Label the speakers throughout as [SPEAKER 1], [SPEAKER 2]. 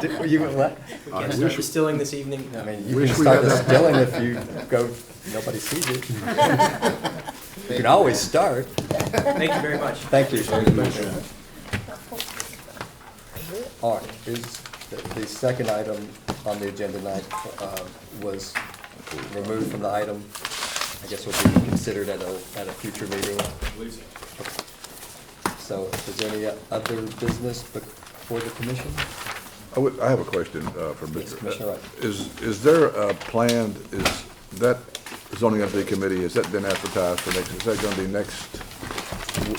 [SPEAKER 1] Did- You would what?
[SPEAKER 2] I
[SPEAKER 3] Can't start
[SPEAKER 2] wish-
[SPEAKER 3] distilling this evening?
[SPEAKER 1] I mean, you
[SPEAKER 2] Wish
[SPEAKER 1] can
[SPEAKER 2] we
[SPEAKER 1] start
[SPEAKER 2] had that.
[SPEAKER 1] distilling if you go, nobody sees it. You can always start.
[SPEAKER 3] Thank you very much.
[SPEAKER 1] Thank you. All right, is, the, the second item on the agenda tonight, um, was removed from the item. I guess will be considered at a, at a future meeting. So is there any other business before the commission?
[SPEAKER 2] I would- I have a question uh, for
[SPEAKER 1] Yes,
[SPEAKER 2] Mr.
[SPEAKER 1] Commissioner Wright.
[SPEAKER 2] Is, is there a planned, is that zoning update committee, has that been advertised for next, is that going to be next?
[SPEAKER 4] Uh,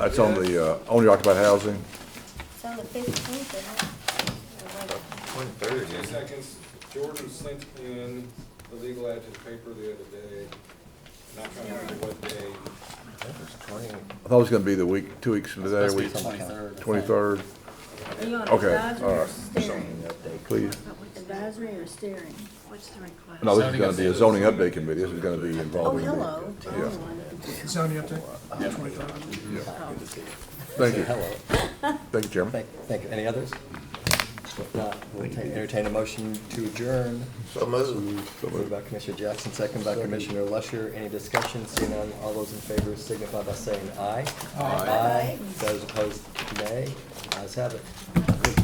[SPEAKER 2] That's on the, uh, owner occupied housing?
[SPEAKER 5] It's on the fifteenth, isn't it?
[SPEAKER 4] Two seconds, Jordan sent in the legal ad to the paper the other day, not trying to remember what day.
[SPEAKER 2] I thought it was going to be the week, two weeks from today, week twenty-third,
[SPEAKER 5] Are you on
[SPEAKER 2] Okay,
[SPEAKER 5] advisory
[SPEAKER 2] all
[SPEAKER 5] or
[SPEAKER 2] right.
[SPEAKER 5] steering?
[SPEAKER 2] please.
[SPEAKER 5] Advisory or steering?
[SPEAKER 6] What's the request?
[SPEAKER 2] No, this is going to be a zoning update committee, this is going to be
[SPEAKER 5] Oh,
[SPEAKER 2] involving. the-
[SPEAKER 5] hello.
[SPEAKER 2] Yeah,
[SPEAKER 7] Zoning update?
[SPEAKER 5] Oh.
[SPEAKER 2] thank you,
[SPEAKER 1] Hello.
[SPEAKER 2] thank you, Chairman.
[SPEAKER 1] Thank, thank you. Any others? If not, we'll ta- entertain a motion to adjourn.
[SPEAKER 8] So moved.
[SPEAKER 1] Moved by Commissioner Jackson, second by Commissioner Lusher. Any discussion? Seeing none, all those in favor signify by saying aye. Aye. Those opposed, nay. Ayes have it.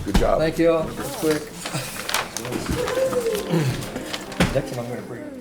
[SPEAKER 2] Good job.
[SPEAKER 1] Thank you all. Quick. Next time I'm gonna bring.